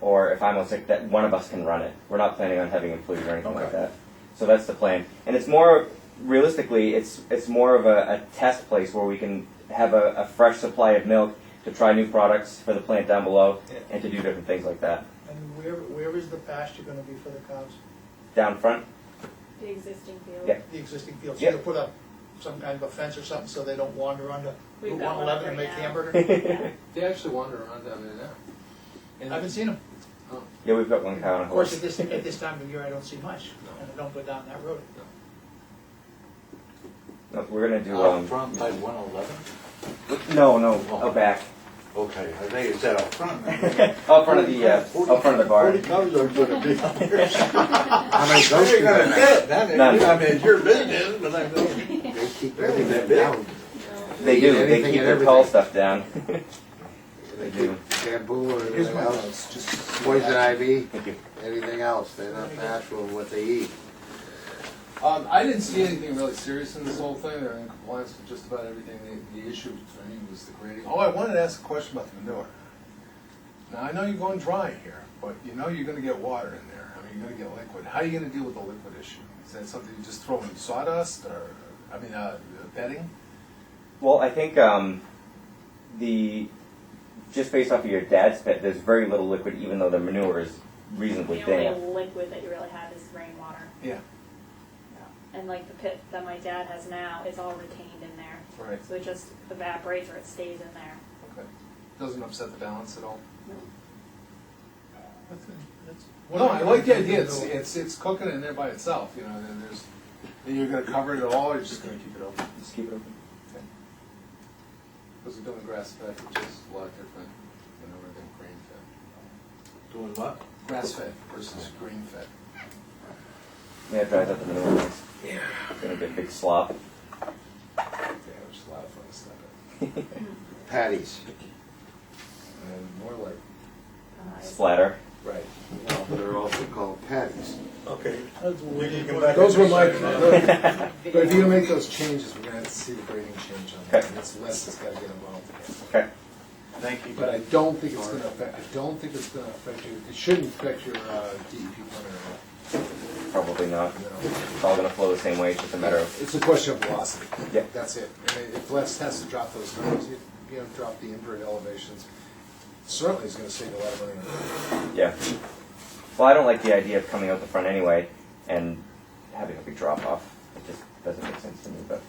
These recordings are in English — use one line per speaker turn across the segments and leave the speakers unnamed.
or if I'm on sick, that one of us can run it. We're not planning on having employees or anything like
Okay.
that. So that's the plan. And it's more, realistically, it's, it's more of a, a test place where we can have a, a fresh supply of milk to try new products for the plant down below
Yeah.
and to do different things like that.
And where, where is the pasture gonna be for the cows?
Down front,
The existing field.
Yeah.
The existing fields,
Yeah.
you put up some kind of a fence or something so they don't wander onto
We've
Route
got
one
one
eleven and
right
make
now.
hamburger?
Yeah.
They actually wander around down there now.
I
And
haven't seen them.
yeah, we've got one cow and a
Of course, at
horse.
this, at this time of year, I don't see much, and I don't go down that road.
No, we're gonna do,
Out
um,
front by one eleven?
no, no, out back.
Okay, I think it's that out front.
Out front of the, uh, out front of the barn.
Forty cows are gonna be out there. How many cows you gonna get? That,
None.
I mean, it's your business, but I know.
They keep
Really, that
everything
big?
down.
They do, they
Anything
keep
and
their tall
everything.
stuff down. They do.
Bamboo or
Here's
anything
my
else,
house, just.
poison ivy,
Thank you.
anything else. They're not natural in what they eat.
Um, I didn't see anything really serious in this whole thing, they're in compliance with just about everything, the, the issue for me was the grading. Oh, I wanted to ask a question about the manure. Now, I know you're going dry here, but you know you're gonna get water in there, I mean, you're gonna get liquid, how are you gonna deal with the liquid issue? Is that something you just throw in sawdust, or, I mean, uh, bedding?
Well, I think um, the just based off of your dad's pet, there's very little liquid, even though the manure is reasonably
The
damp.
only liquid that you really have is rainwater.
Yeah.
And like the pit that my dad has now is all retained in there.
Right.
So it just evaporates or it stays in there.
Okay. Doesn't upset the balance at all?
That's- that's-
No, I like the idea, it's, it's, it's cooking in there by itself, you know, and then there's, and you're gonna cover it all, or you're just gonna keep it open?
Just keep it open.
Because we're doing grass fed, which is a lot different than everything grain fed.
Doing what?
Grass fed versus green fed.
Yeah, it dries up the manure. It's gonna be a big slop.
Yeah, which is a lot of fun stuff.
Patties.
And more like,
Uh, it's-
Splatter.
right.
No, They're also called patties.
Okay.
that's what we need to-
Those were my, but if you make those changes, we're gonna have to see the grading change on that, and it's less that's gotta get involved.
Okay.
Thank you.
But I don't think it's gonna affect, I don't think it's gonna affect you, it shouldn't affect your uh, DEP permit at
Probably not.
all, you know?
It's all gonna flow the same way. It's just a matter of
It's a question of velocity.
Yeah.
That's it. And if Les has to drop those numbers, you you know, drop the invert elevations, certainly is gonna save a lot of money.
yeah. Well, I don't like the idea of coming out the front anyway and having a big drop off. It just doesn't make sense to me. But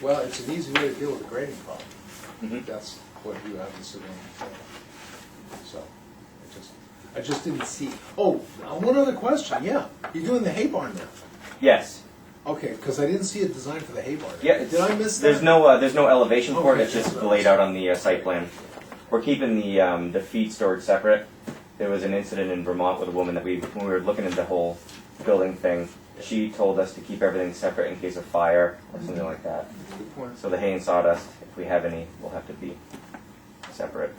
Well, it's an easy way to deal with a grading problem.
Mhm.
That's what you obviously want to do. So, I just, I just didn't see. Oh, uh, one other question, yeah. You're doing the hay barn now.
yes.
Okay, because I didn't see a design for the hay barn.
Yeah, it's-
Did I miss that?
There's no, uh, there's no elevation for it,
Okay.
it's just laid out on the uh, site plan. We're keeping the, um, the feed storage separate. There was an incident in Vermont with a woman that we, when we were looking at the whole building thing, she told us to keep everything separate in case of fire or something like that.
Good point.
So the hay and sawdust, if we have any, will have to be separate.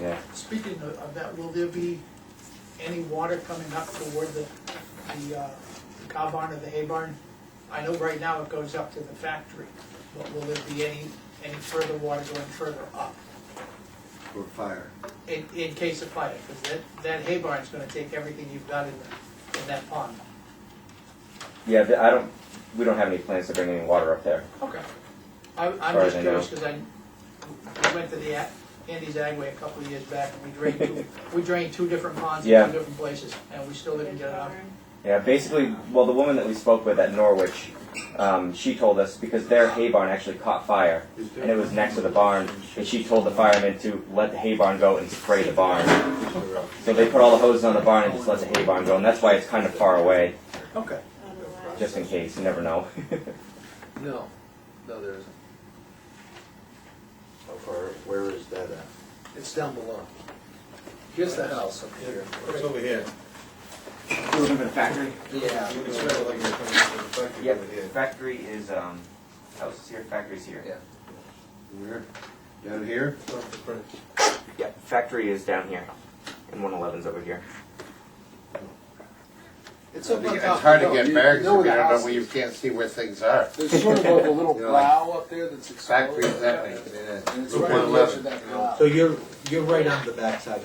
Yeah.
Speaking of of that, will there be any water coming up toward the, the uh, the cow barn or the hay barn? I know right now it goes up to the factory, but will there be any, any further water going further up?
For fire.
In, in case of fire, because that, that hay barn's gonna take everything you've got in, the- in that pond.
Yeah, th- I don't, we don't have any plans to bring any water up there.
Okay. I, I'm
Far as
just
I
curious, because I, we went to the A- Andy's Agway a couple of years back, and we drained two, we drained two different ponds in
Yeah.
two different places, and we still didn't
it's
get it out.
barn.
Yeah, basically, well, the woman that we spoke with at Norwich, um, she told us because their hay barn actually caught fire, and it was next to the barn, and she told the firemen to let the hay barn go and spray the barn. So they put all the hoses on the barn and just let the hay barn go, and that's why it's kind of far away,
Okay.
Otherwise-
just in case. You never know.
No, no, there isn't.
How far, where is that at?
It's down below. Here's the house up here.
It's over here.
Yeah.
yep. Factory is um, house is here. Factory's here.
Yeah. Where? Down here?
Yep. Factory is down here, and 111's over here.
It's up on
It's
top.
hard to
You know,
get
you
bags
know where the
together, but
house
when you
is.
can't see where things are.
There's sort of like a little
You know,
brow up there that's exposed.
Factories, that way.
And it's
Route
right on the edge
111,
of that
you know.
brow.
So you're, you're right on the backside